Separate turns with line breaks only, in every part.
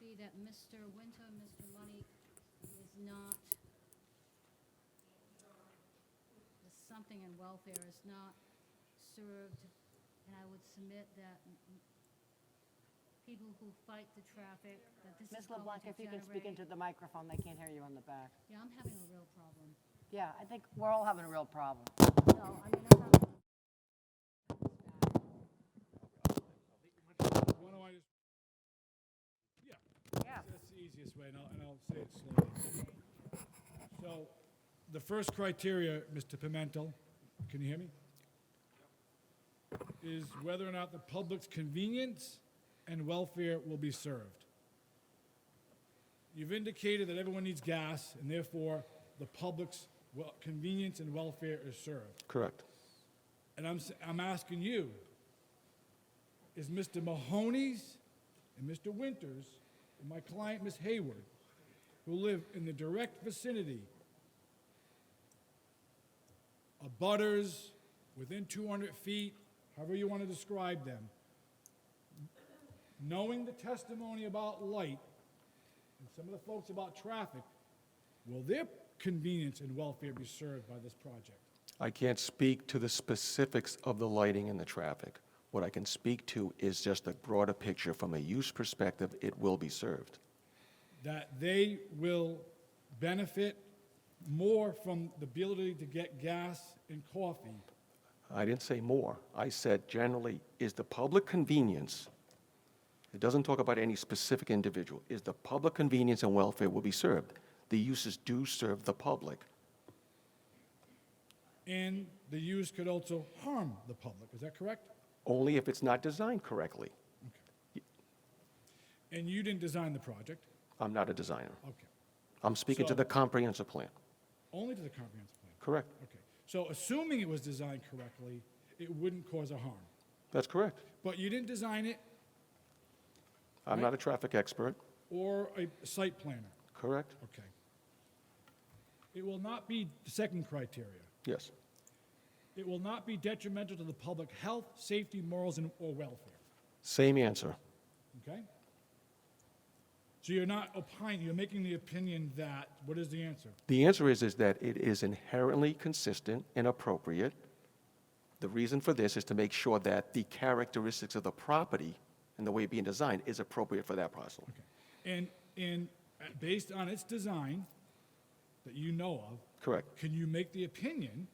see that Mr. Winter, Mr. Money is not, the something in welfare is not served, and I would submit that m- m- people who fight the traffic, that this is
Ms.
going to
LeBlanc,
generate.
if you can speak into the microphone, they can't hear you on the back.
Yeah, I'm having a real problem.
Yeah, I think we're all having a real problem.
So, I mean, I'm not.
Why don't I just, yeah,
Yeah.
that's the easiest way, and I'll, and I'll say it slowly. So, the first criteria, Mr. Pimentel, can you hear me? Is whether or not the public's convenience and welfare will be served. You've indicated that everyone needs gas, and therefore, the public's wel- convenience and welfare is served.
Correct.
And I'm, s- I'm asking you, is Mr. Mahoney's and Mr. Winters and my client, Ms. Hayward, who live in the direct vicinity of butters, within 200 feet, however you want to describe them, knowing the testimony about light and some of the folks about traffic, will their convenience and welfare be served by this project?
I can't speak to the specifics of the lighting and the traffic. What I can speak to is just a broader picture. From a use perspective, it will be served.
that they will benefit more from the ability to get gas and coffee.
I didn't say more. I said generally, is the public convenience, it doesn't talk about any specific individual, is the public convenience and welfare will be served. The uses do serve the public.
And the use could also harm the public, is that correct?
only if it's not designed correctly.
And you didn't design the project?
I'm not a designer.
Okay.
I'm speaking to
So-
the comprehensive plan.
Only to the comprehensive plan?
Correct.
Okay. So assuming it was designed correctly, it wouldn't cause a harm.
That's correct.
But you didn't design it
I'm not a traffic expert.
or a site planner?
Correct?
Okay. It will not be the second criteria.
Yes.
It will not be detrimental to the public health, safety, morals, and, or welfare.
Same answer.
Okay? So you're not opining, you're making the opinion that, what is the answer?
The answer is, is that it is inherently consistent and appropriate. The reason for this is to make sure that the characteristics of the property and the way it being designed is appropriate for that parcel.
Okay. And, and uh, based on its design that you know of,
Correct.
can you make the opinion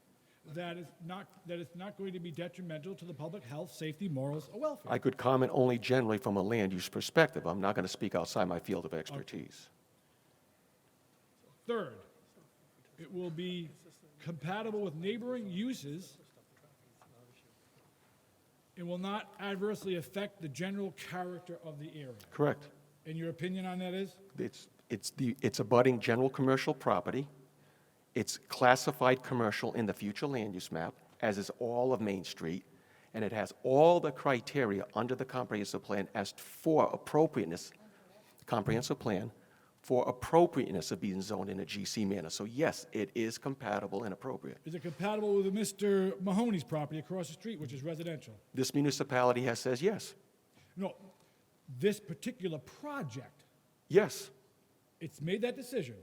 that it's not, that it's not going to be detrimental to the public health, safety, morals, or welfare?
I could comment only generally from a land use perspective. I'm not going to speak outside my field of expertise.
Third, it will be compatible with neighboring uses and will not adversely affect the general character of the area.
Correct.
And your opinion on that is?
It's, it's the, it's abutting general commercial property. It's classified commercial in the future land use map, as is all of Main Street. And it has all the criteria under the comprehensive plan as for appropriateness, comprehensive plan, for appropriateness of being zoned in a GC manner. So yes, it is compatible and appropriate.
Is it compatible with Mr. Mahoney's property across the street, which is residential?
This municipality has says yes,
No, this particular project,
yes.
it's made that decision.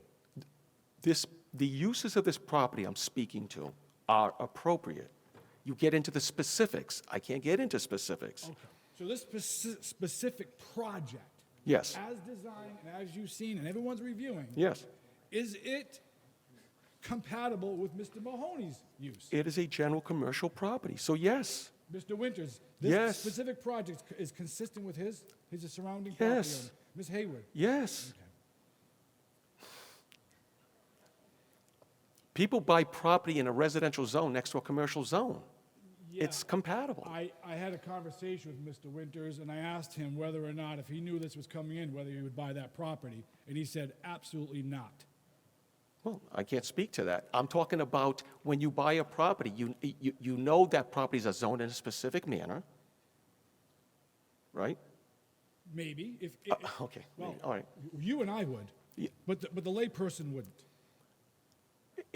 this, the uses of this property I'm speaking to are appropriate. You get into the specifics. I can't get into specifics.
Okay. So this speci- specific project,
Yes,
as designed and as you've seen and everyone's reviewing,
yes.
is it compatible with Mr. Mahoney's use?
It is a general commercial property, so yes,
Mr. Winters, this
Yes.
specific project c- is consistent with his, his surrounding property
Yes.
owner? Ms. Hayward?
yes. People buy property in a residential zone next to a commercial zone. It's
Yeah.
compatible.
I, I had a conversation with Mr. Winters, and I asked him whether or not, if he knew this was coming in, whether he would buy that property, and he said, absolutely not.
Well, I can't speak to that. I'm talking about when you buy a property, you, you, you know that properties are zoned in a specific manner, right?
Maybe, if,
Uh,
if-
okay,
well,
all right.
you and I would,
Yeah.
but, the- but the layperson wouldn't.